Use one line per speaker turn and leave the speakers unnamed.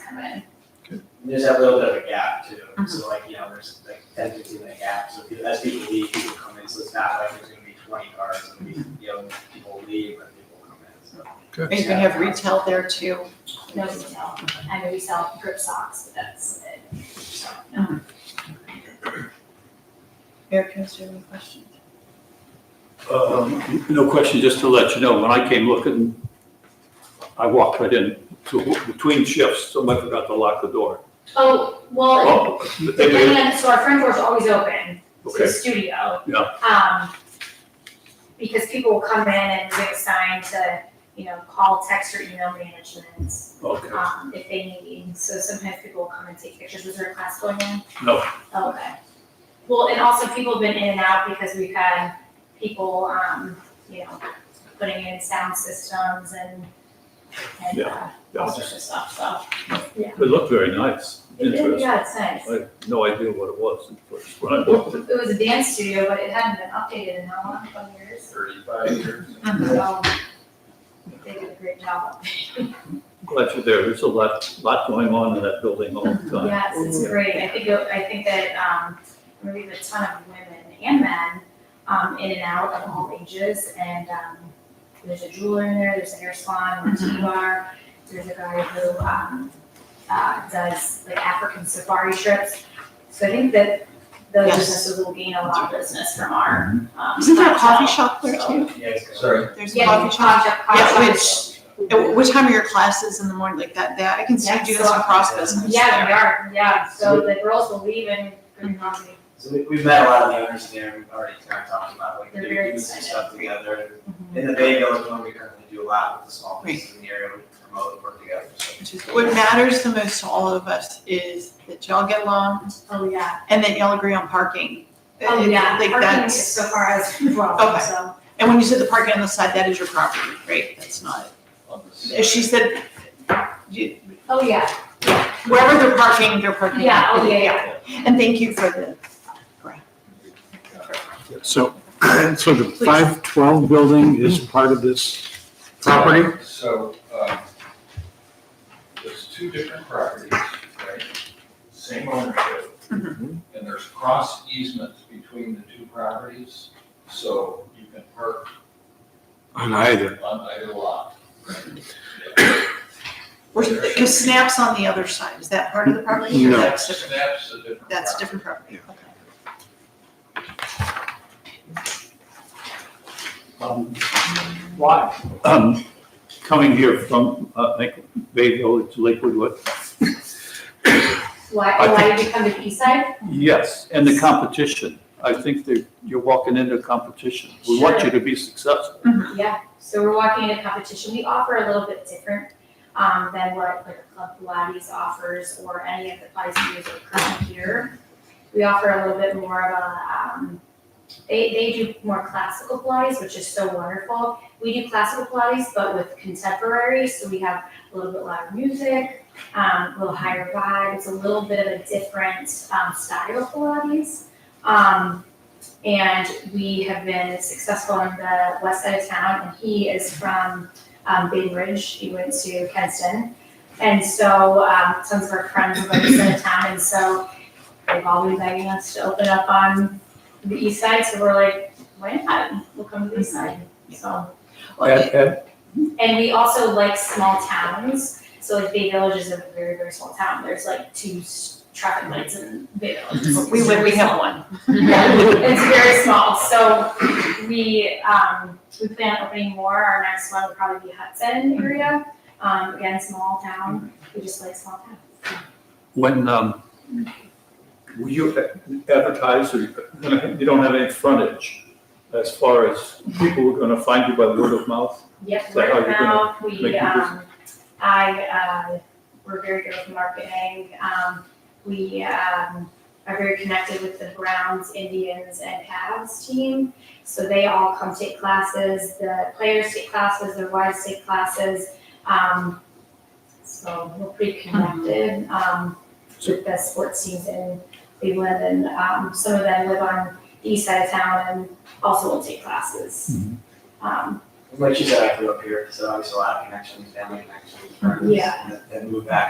recommend.
And There's that little bit of a gap too,
Uh-huh.
so like, you know, there's like ten, fifteen minute gap, so people- as people leave, people come in, so it's not like there's gonna be twenty cars, it'll be,
Mm-hmm.
you know, people leave and people come in, so.
And you can have retail there too.
No retail. I know we sell grip socks, but that's it.
Eric, can I ask you any questions?
Um, No question, just to let you know, when I came looking, I walked right in to- between shifts, somebody forgot to lock the door.
Oh, well,
Oh, they made it-
depending on, so our front door's always open to the
Okay,
studio.
Yeah.
Um, because people will come in and we have a sign to, you know, call, text, or email management,
okay,
um, if they need. So sometimes people will come and take pictures. Was there a class going on? Oh,
no,
Okay. Well, and also people have been in and out because we've had people, um, you know, putting in sound systems and, and, uh, all
yeah.
sorts of stuff, so.
it looked very nice,
It did,
interesting.
yeah, it's nice.
I had no idea what it was at first when I walked in.
It was a dance studio, but it hadn't been updated in how long, twenty years?
Thirty-five years.
So they did a great job.
Glad you're there, there's a lot, lot going on in that building all the time.
Yes, it's great. I think, it- I think that, um, we have a ton of women and men, um, in and out of all ages. And, um, there's a jeweler in there, there's a hair salon, a
Mm-hmm.
tea bar. There's a guy who, um, uh, does like African safari trips. So I think that those
Yes. Mm-hmm.
businesses will gain a lot of business from our, um.
Isn't there a coffee
clientele.
shop there too?
Yeah, it's.
Sorry.
There's a
Yeah,
coffee shop.
coffee
Yeah,
shop.
which- At What time are your classes in the morning, like that, that, I can see you
Yeah,
doing
so-
some cross business
Yeah, we
there.
are, yeah, so the girls will leave and bring coffee.
So we, we've met a lot of the owners there, we've already kind of talked about like
They're
doing
very
this and
excited. Mm-hmm.
stuff together. In the Bay Village, one, we currently do a lot with the small
Great.
businesses in the area, we promote and work together, so.
Which is- What matters the most to all of us is that y'all get along
Oh, yeah.
and that y'all agree on parking.
Oh,
It-
yeah.
Like
Parking is
that's,
so far as problem,
Okay.
so.
and when you said the parking on the side, that is your property, right? That's not, she said, you-
Oh, yeah.
wherever they're parking, they're parking.
Yeah, oh, yeah, yeah.
And thank you for the,
So, so the five twelve building is part of this property?
So, um, there's two different properties, right? Same ownership.
Mhm.
Mm-hmm.
And there's cross easements between the two properties, so you can park
On either.
on either lot.
because Snap's on the other side, is that part of the property? or
No.
That's different,
That's a different.
that's
property.
different property, okay.
Um, Why? Um, Coming here from uh, Lake- Bay Village to Lakewood, what,
Why,
I
why did you come to the east side?
Yes, and the competition. I think that you're walking into competition. We want you to be successful.
Um, Yeah, so we're walking into competition. We offer a little bit different, um, than what like Club Pilates offers or any of the Pilates studios that are currently here. We offer a little bit more of a, um, they, they do more classical Pilates, which is so wonderful. We do classical Pilates, but with contemporary, so we have a little bit louder music, um, a little higher vibe. It's a little bit of a different, um, style of Pilates. Um, and we have been successful in the west side of town, and he is from um, Bay Ridge. He went to Kenston. And so um, some of our friends live in the side of town, and so they've all been begging us to open up on the east side. So we're like, why not? We'll come to the east side. So,
And- and
and we also like small towns. So like Bay Village is a very very small town. There's like two s- traffic lights in Bay Village.
We would, we have one.
It's very small, so we, um, we plan on opening more, our next one would probably be Hudson area, um, again, small town, we just like small towns.
When, um, will you advertise or, you don't have any frontage as far as people are gonna find you by word of mouth?
Yep,
So how
right
you're gonna
now,
make
we,
your
um, I, uh, we're very good with marketing, um, we, um, are very connected with the Browns, Indians, and Cavs team, so they all come take classes, the players take classes, their wives take classes, um, so we're pretty connected, um, with the sports teams in Cleveland, and, um, some of them live on the east side of town and also will take classes. Um,
Like you said, I grew up here, so obviously a lot of connections, family connections, friends.
Yeah.
that- That moved back